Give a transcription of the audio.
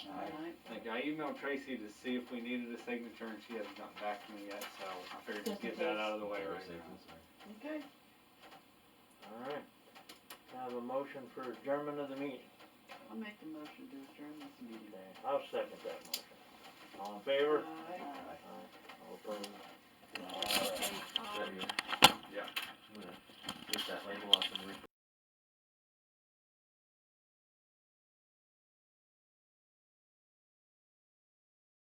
right. Like, I emailed Tracy to see if we needed a signature, and she hasn't gotten back to me yet, so I figured to Just in get that case. out of the way right Safe now. and sorry. Okay, Alright, Can I have a motion for adjournment of the meeting. I'll make the motion to adjourn this meeting. Okay, I'll second that motion. All in favor? Aye. All opposed? Okay, um, There you go. Yeah. Yeah.